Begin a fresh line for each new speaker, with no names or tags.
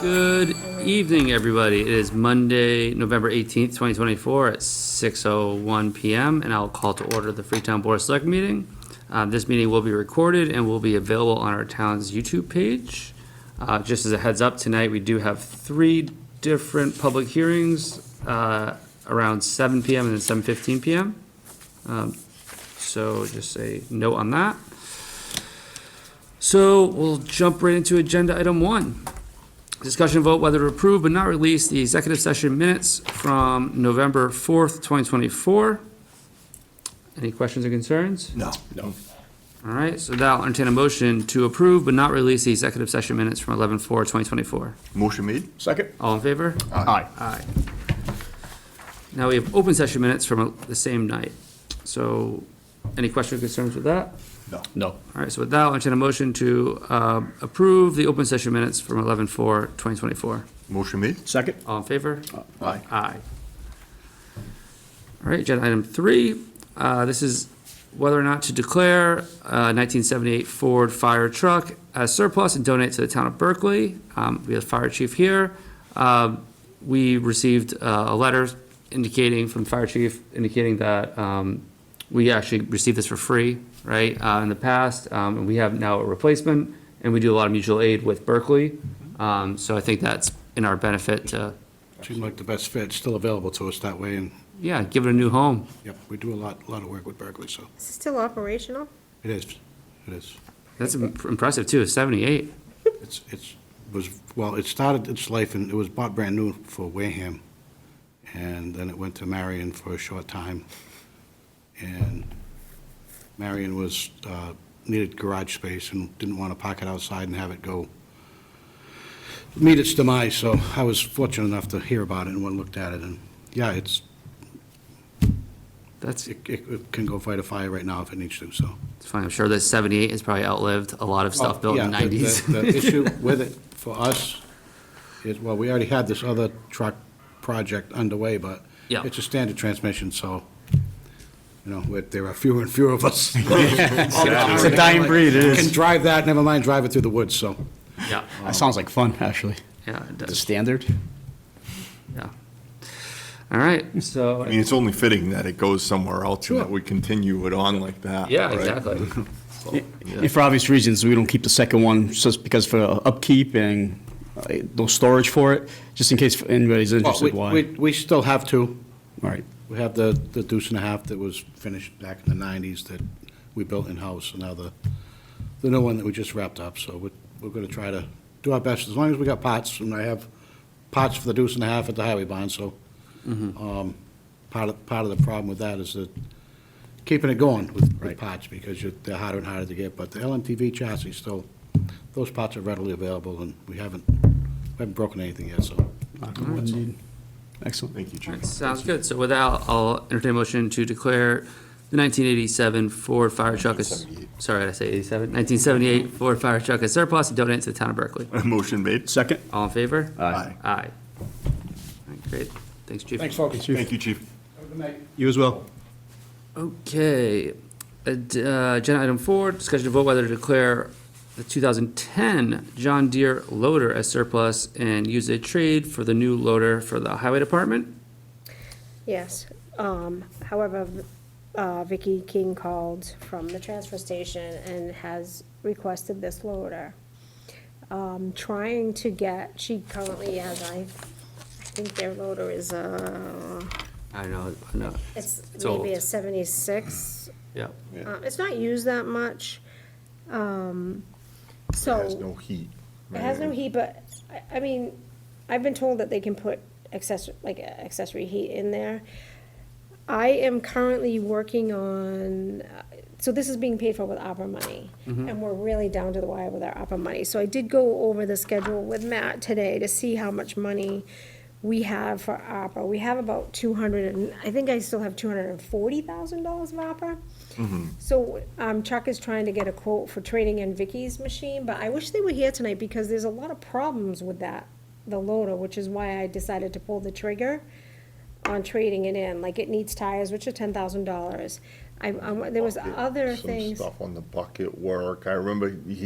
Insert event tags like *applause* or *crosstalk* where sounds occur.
Good evening, everybody. It is Monday, November 18th, 2024 at 6:01 PM, and I'll call to order the Freetown Board of Select meeting. Uh, This meeting will be recorded and will be available on our town's YouTube page. Uh, Just as a heads up, tonight, we do have three different public hearings uh, around 7 PM and then 7:15 PM. Um, So just a note on that. So we'll jump right into agenda item one. Discussion vote whether to approve but not release the executive session minutes from November 4th, 2024. Any questions or concerns?
No. No.
All right, so that'll entertain a motion to approve but not release the executive session minutes from 11/4/2024.
Motion made? Second.
All in favor?
Aye.
Aye. Now we have open session minutes from uh, the same night. So any questions or concerns with that?
No. No.
All right, so with that, I'll entertain a motion to uh, approve the open session minutes from 11/4/2024.
Motion made? Second.
All in favor?
Aye.
Aye. All right, agenda item three, uh, this is whether or not to declare a nineteen seventy-eight Ford fire truck as surplus and donate to the town of Berkeley. Um, we have the fire chief here. Um, we received uh, a letter indicating from the fire chief indicating that, um, we actually received this for free, right, uh, in the past, um, and we have now a replacement, and we do a lot of mutual aid with Berkeley. Um, so I think that's in our benefit to
Seemed like the best fit, still available to us that way, and,
Yeah, give it a new home.
yep, we do a lot, a lot of work with Berkeley, so
Is it still operational?
it is, it is.
That's im- impressive too, 78.
It's, it's, was, well, it started its life, and it was bought brand new for Wareham, and then it went to Marion for a short time, and Marion was, uh, needed garage space and didn't want to park it outside and have it go meet its demise, so I was fortunate enough to hear about it and went and looked at it, and, yeah, it's,
That's
it, it it can go fight a fire right now if it needs to, so.
it's fine. I'm sure that 78 has probably outlived a lot of stuff built in the
Oh, Yeah, the-
90s.
The the issue with it for us is, well, we already had this other truck project underway, but
Yeah.
it's a standard transmission, so, you know, with- there are fewer and fewer of
*laughs*
us.
It's a dying breed, it
Can
is.
drive that, never mind drive it through the woods, so.
*laughs* Yeah,
That sounds like fun, actually.
yeah, it
The
does,
standard?
yeah. All right, so,
I mean, it's only fitting that it goes somewhere else and that
Sure.
we continue it on like that.
yeah,
right?
exactly.
And for obvious reasons, we don't keep the second one, just because for upkeep and uh, no storage for it, just in case anybody's
Well, we-
interested why.
We, we still have to.
All right,
We have the, the deuce and a half that was finished back in the nineties that we built in-house, and now the, the new one that we just wrapped up, so we're, we're gonna try to do our best, as long as we got pots, and I have pots for the deuce and a half at the highway bond, so, um, part of, part of the problem with that is that keeping it going with, with pots, because you're, they're harder and harder to get, but the LMTV chassis still, those pots are readily available, and we haven't, we haven't broken anything yet, so.
excellent.
Thank you, Chief. *laughs*
Sounds good. So without, I'll entertain a motion to declare the 1987 Ford fire truck as,
1978.
sorry, did I say 87? 1978 Ford fire truck as surplus and donate to the town of Berkeley.
Motion made?
Second?
All in favor?
Aye.
Aye. All right, Great, thanks, Chief.
folks.
Thank you, Chief.
You as well.
Okay, ad- uh, agenda item four, discussion to vote whether to declare the 2010 John Deere loader as surplus and use a trade for the new loader for the highway department.
Yes. Um, however, v- uh, Vicky King called from the transfer station and has requested this loader. Um, trying to get, she currently has, I, I think their loader is a,
I don't know, I know,
it's
It's old.
maybe a seventy-six.
yeah.
Uh, it's not used that much. Um, so.
Has no heat.
It has no heat, but, I, I mean, I've been told that they can put accessory, like uh, accessory heat in there. I am currently working on, uh, so this is being paid for with opera money, and we're really down to the wire with our opera money. So I did go over the schedule with Matt today to see how much money we have for opera. We have about two hundred and, I think I still have two hundred and forty thousand dollars of opera. So um, Chuck is trying to get a quote for trading in Vicky's machine, but I wish they were here tonight because there's a lot of problems with that, the loader, which is why I decided to pull the trigger on trading it in. Like it needs tires, which are ten thousand dollars. I, I- there was other
Some
things.
Stuff on the bucket work. I remember he